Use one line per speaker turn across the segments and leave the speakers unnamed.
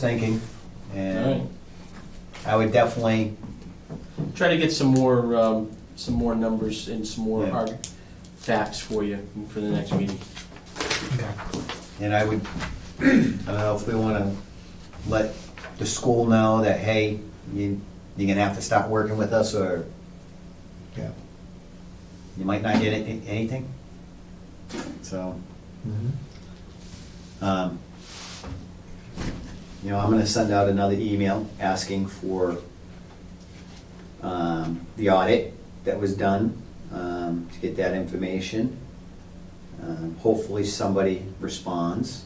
thinking,
Alright.
and I would definitely,
Try to get some more, um, some more numbers and some more
Yeah.
hard facts for you for the next meeting.
and I would, I don't know if we wanna let the school know that, hey, you, you're gonna have to stop working with us, or
Yeah.
you might not get any- anything. So, um, you know, I'm gonna send out another email asking for, um, the audit that was done, um, to get that information. Um, Hopefully, somebody responds.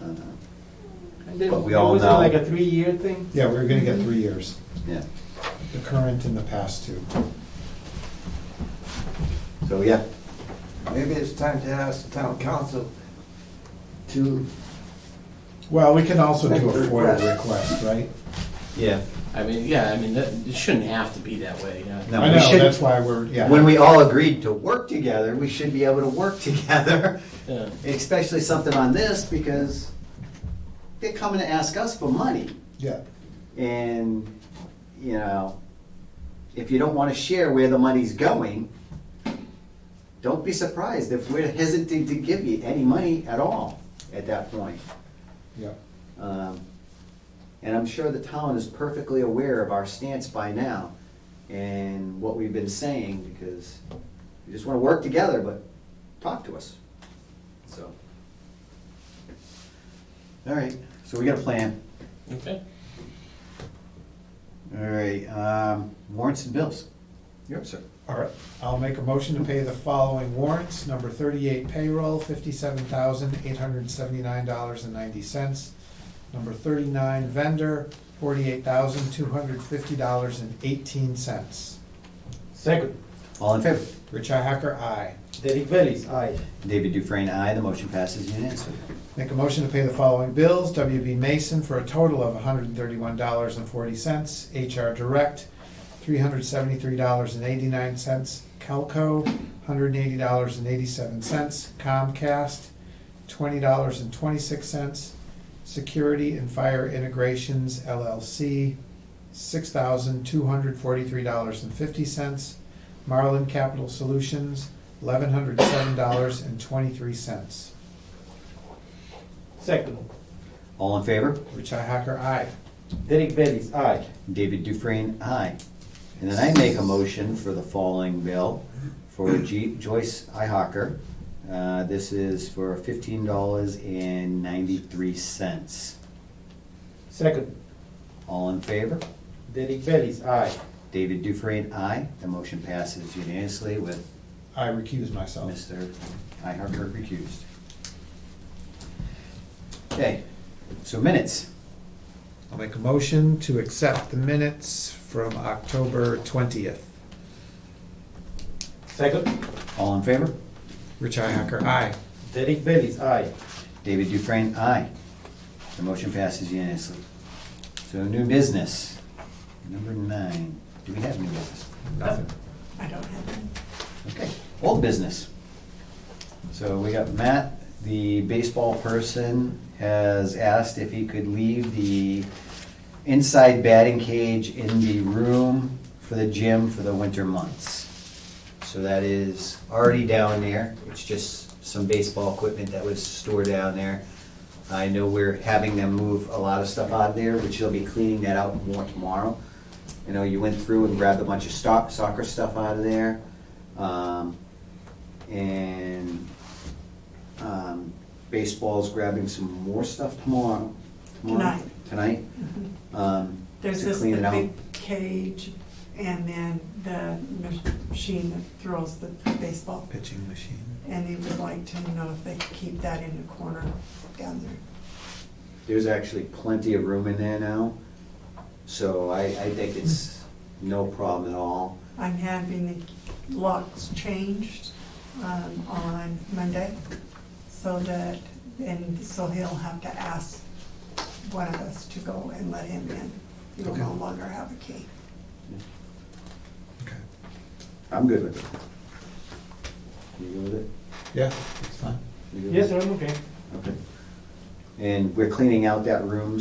Uh,
And then
But we all
was it
know-
like a three-year thing?
Yeah, we're gonna get three years,
Yeah,
the current and the past two.
so, yeah,
Maybe it's time to ask the town council to,
Well, we can also do a FOIA
Request.
request, right?
yeah.
I mean, yeah, I mean, that, it shouldn't have to be that way, yeah.
No,
I
we
know,
should-
that's why we're, yeah.
When we all agreed to work together, we should be able to work together,
Yeah.
especially something on this, because they're coming to ask us for money.
Yeah,
And, you know, if you don't want to share where the money's going, don't be surprised if we're hesitant to give you any money at all at that point.
yeah.
Um, And I'm sure the town is perfectly aware of our stance by now and what we've been saying, because we just want to work together, but talk to us, so. All right, so we got a plan.
Okay.
All right, um, warrants and bills. Yep, sir.
All right, I'll make a motion to pay the following warrants. Number thirty-eight payroll, fifty-seven thousand, eight hundred and seventy-nine dollars and ninety cents. Number thirty-nine vendor, forty-eight thousand, two hundred fifty dollars and eighteen cents.
Second,
All in favor?
Richi Hacker, aye.
Derek Bellis, aye.
David Dufresne, aye. The motion passes unanimously.
Make a motion to pay the following bills, WB Mason for a total of hundred and thirty-one dollars and forty cents, HR Direct, three hundred seventy-three dollars and eighty-nine cents, Calco, hundred and eighty dollars and eighty-seven cents, Comcast, twenty dollars and twenty-six cents, Security and Fire Integrations LLC, six thousand two hundred forty-three dollars and fifty cents, Marlin Capital Solutions, eleven hundred seven dollars and twenty-three cents.
Second,
All in favor?
Richi Hacker, aye.
Derek Bellis, aye.
David Dufresne, aye. And then I make a motion for the following bill for G- Joyce Ihawker. Uh, This is for fifteen dollars and ninety-three cents.
Second,
All in favor?
Derek Bellis, aye.
David Dufresne, aye. The motion passes unanimously with
I recuse myself.
Mr. Ihawker recused. Okay, so minutes.
I'll make a motion to accept the minutes from October twentieth.
Second,
All in favor?
Richi Hacker, aye.
Derek Bellis, aye.
David Dufresne, aye. The motion passes unanimously. So new business, number nine. Do we have new business?
Nothing.
Okay, old business. So we got Matt, the baseball person, has asked if he could leave the inside batting cage in the room for the gym for the winter months. So that is already down there. It's just some baseball equipment that was stored down there. I know we're having them move a lot of stuff out of there, which they'll be cleaning that out more tomorrow. You know, you went through and grabbed a bunch of stock, soccer stuff out of there. Um, and, um, baseball's grabbing some more stuff tomorrow. tomorrow-
Tonight.
Tonight. Um,
There's
to
this
clean
the
it out.
big cage and then the machine that throws the baseball.
Pitching machine.
And they would like to know if they could keep that in a corner down there.
There's actually plenty of room in there now, so I, I think it's no problem at all.
I'm having the locks changed um, on Monday so that, and so he'll have to ask one of us to go and let him in. He will no
Okay.
longer have a key.
Okay.
I'm good with it. You good with it?
Yeah, it's fine.
You good with
Yes,
it?
sir, I'm okay.
Okay. And we're cleaning out that room,